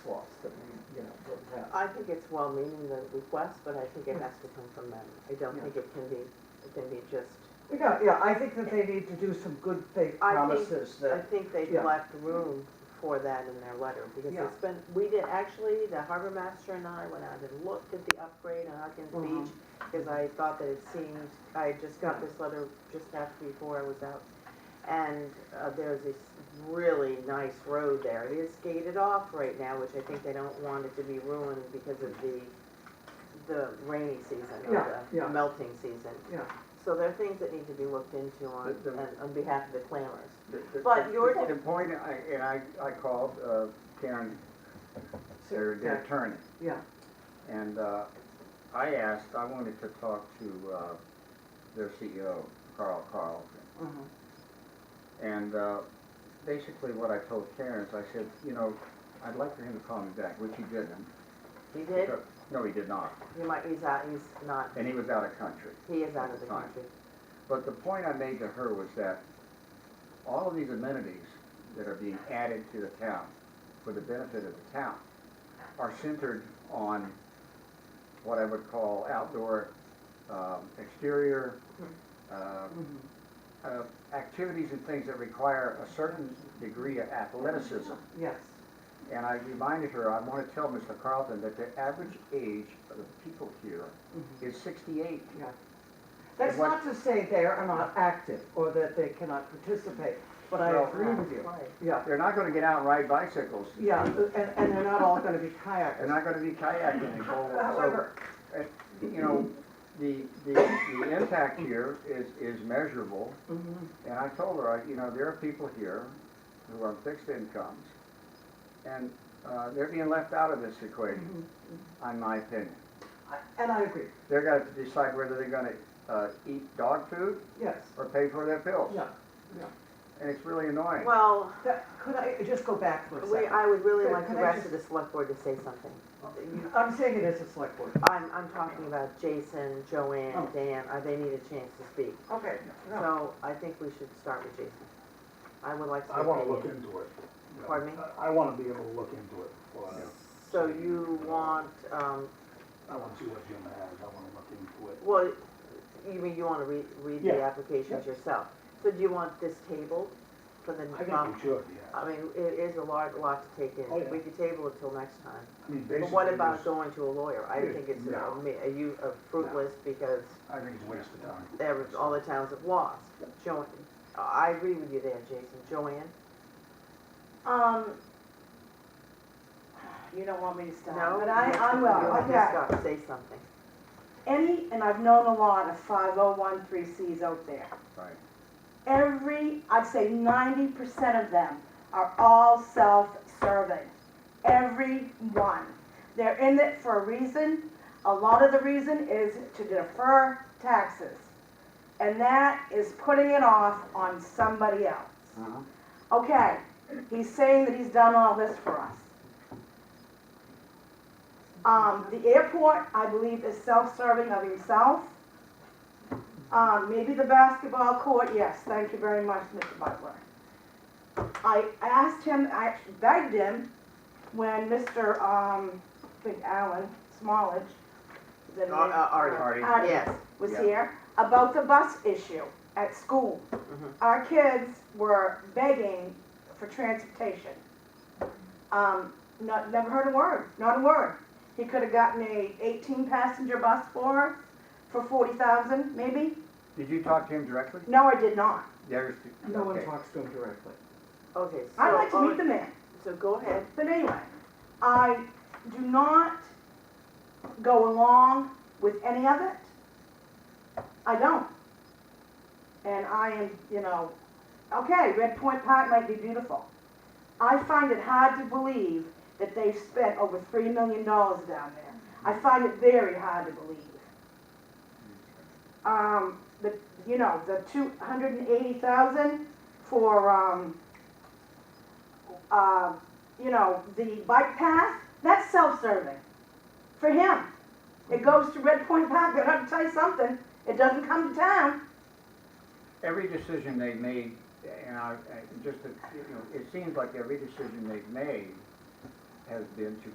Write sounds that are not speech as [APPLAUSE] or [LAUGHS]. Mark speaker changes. Speaker 1: Yeah.
Speaker 2: I think it's well-meaning, the request, but I think it has to come from them. I don't
Speaker 1: Yeah.
Speaker 2: think it can be, it can be just,
Speaker 1: Yeah, yeah, I think that they need to do some good faith
Speaker 2: I think-
Speaker 1: promises
Speaker 2: I
Speaker 1: that,
Speaker 2: think they've
Speaker 1: Yeah.
Speaker 2: left room for that in their letter, because
Speaker 1: Yeah.
Speaker 2: it's been, we did, actually, the harbor master and I went out and looked at the upgrade on Hawkins
Speaker 1: Mhm.
Speaker 2: Beach, because I thought that it seemed, I had just got this letter just after, before I was out, and uh, there's this really nice road there. It is gated off right now, which I think they don't want it to be ruined because of the, the rainy season
Speaker 1: Yeah,
Speaker 2: or the
Speaker 1: yeah.
Speaker 2: melting season.
Speaker 1: yeah.
Speaker 2: So there are things that need to be looked into on,
Speaker 3: The- the-
Speaker 2: on- on behalf of the clamors.
Speaker 3: The- the-
Speaker 2: But
Speaker 3: the-
Speaker 2: your-
Speaker 3: The point, I- and I, I called uh, Karen, their their attorney,
Speaker 1: Yeah,
Speaker 3: and uh, I asked, I wanted to talk to uh, their CEO, Carl Carlson.
Speaker 1: mhm,
Speaker 3: And uh, basically what I told Karen is I said, you know, I'd like for him to call me back, which he didn't.
Speaker 2: He did,
Speaker 3: No, he did not,
Speaker 2: he might, he's out, he's not,
Speaker 3: and he was out of country.
Speaker 2: he is out of the
Speaker 3: Fine.
Speaker 2: country.
Speaker 3: But the point I made to her was that all of these amenities that are being added to the town for the benefit of the town are centered on what I would call outdoor, um, exterior, uh,
Speaker 1: mhm.
Speaker 3: uh, activities and things that require a certain degree of athleticism.
Speaker 1: yes,
Speaker 3: And I reminded her, I want to tell Mr. Carlton that the average age of the people here
Speaker 1: mhm,
Speaker 3: is sixty-eight.
Speaker 1: yeah. That's
Speaker 3: what-
Speaker 1: not to say they are not active or that they cannot participate, but I
Speaker 3: Well,
Speaker 1: agree with you.
Speaker 2: Right.
Speaker 1: Yeah,
Speaker 3: They're not going to get out and ride bicycles.
Speaker 1: yeah, and, and they're not all gonna be kayakers.
Speaker 3: They're not gonna
Speaker 1: [LAUGHS]
Speaker 3: be kayaking and go, so,
Speaker 1: However,
Speaker 3: uh, you know, the, the, the impact here is, is measurable.
Speaker 1: mhm,
Speaker 3: And I told her, I- you know, there are people here who are fixed incomes, and, uh, they're being left out of this equation,
Speaker 1: mhm.
Speaker 3: in my opinion.
Speaker 1: I- and I agree,
Speaker 3: They're gonna have to decide whether they're gonna, uh, eat dog food
Speaker 1: yes,
Speaker 3: or pay for their pills.
Speaker 1: yeah.
Speaker 3: And it's really annoying.
Speaker 2: Well,
Speaker 1: That- Could I just go back for a
Speaker 2: we,
Speaker 1: second?
Speaker 2: I would really like the
Speaker 1: Can I
Speaker 2: rest
Speaker 1: just-
Speaker 2: of the select board to say something.
Speaker 4: Oh.
Speaker 1: I'm saying it as a select board.
Speaker 2: I'm, I'm talking about Jason, Joanne,
Speaker 1: Oh.
Speaker 2: Dan, uh, they need a chance to speak.
Speaker 1: Okay.
Speaker 4: Oh.
Speaker 1: no.
Speaker 2: So I think we should start with Jason. I would like to.
Speaker 4: I wanna look into it.
Speaker 2: Pardon me?
Speaker 4: I- I wanna be able to look into it. Well, I-
Speaker 2: So you want, um,
Speaker 4: I wanna see what Jim has, I wanna look into it.
Speaker 2: well, you mean you wanna read, read the
Speaker 4: Yeah.
Speaker 2: applications yourself? So do you want this table for the?
Speaker 4: I
Speaker 2: um,
Speaker 4: think we should, yeah.
Speaker 2: I mean, it is a large lot to take
Speaker 4: Oh,
Speaker 2: in.
Speaker 4: yeah.
Speaker 2: We could table it till next time.
Speaker 4: I mean,
Speaker 2: But what
Speaker 4: basically,
Speaker 2: about
Speaker 4: it's-
Speaker 2: going to a lawyer? I think it's a,
Speaker 4: No.
Speaker 2: a you, a fruitless because
Speaker 4: I think it's a waste of time.
Speaker 2: there was, all the towns have lost. Joanne, I agree with you there, Jason. Joanne?
Speaker 5: Um, you don't want me to stop,
Speaker 2: No?
Speaker 5: but I, I
Speaker 2: You
Speaker 5: will,
Speaker 2: want to
Speaker 5: okay.
Speaker 2: stop, say something.
Speaker 5: Any, and I've known a lot of five oh one three Cs out there.
Speaker 3: Right.
Speaker 5: Every, I'd say ninety percent of them are all self-serving. Every one. They're in it for a reason. A lot of the reason is to defer taxes. And that is putting it off on somebody else.
Speaker 3: Uh-huh.
Speaker 5: Okay, he's saying that he's done all this for us. Um, the airport, I believe, is self-serving of himself. Um, maybe the basketball court, yes, thank you very much, Mr. Butler. I asked him, I begged him, when Mr., um, I think Allen Smallage, is that his
Speaker 2: Ar-
Speaker 5: name?
Speaker 2: uh, Artie.
Speaker 3: Artie.
Speaker 5: Artie
Speaker 2: Yes,
Speaker 5: was
Speaker 3: Yeah.
Speaker 5: here about the bus issue at school.
Speaker 2: Mhm.
Speaker 5: Our kids were begging for transportation. Um, not, never heard a word, not a word. He could have gotten a eighteen passenger bus for us, for forty thousand maybe.
Speaker 3: Did you talk to him directly?
Speaker 5: No, I did not.
Speaker 3: There's.
Speaker 1: No one
Speaker 3: okay.
Speaker 1: talks to him directly.
Speaker 2: okay, so.
Speaker 5: I'd like to meet
Speaker 2: on-
Speaker 5: the man.
Speaker 2: So go ahead.
Speaker 5: But anyway, I do not go along with any of it. I don't. And I am, you know, okay, Red Point Park might be beautiful. I find it hard to believe that they've spent over three million dollars down there. I find it very hard to believe. Um, the, you know, the two hundred and eighty thousand for, um, uh, you know, the bike path, that's self-serving for him. It goes to Red Point Park, they're gonna tell you something, it doesn't come to town.
Speaker 3: every decision they made, and I, I- just, to- you know, it seems like every decision they've made has been to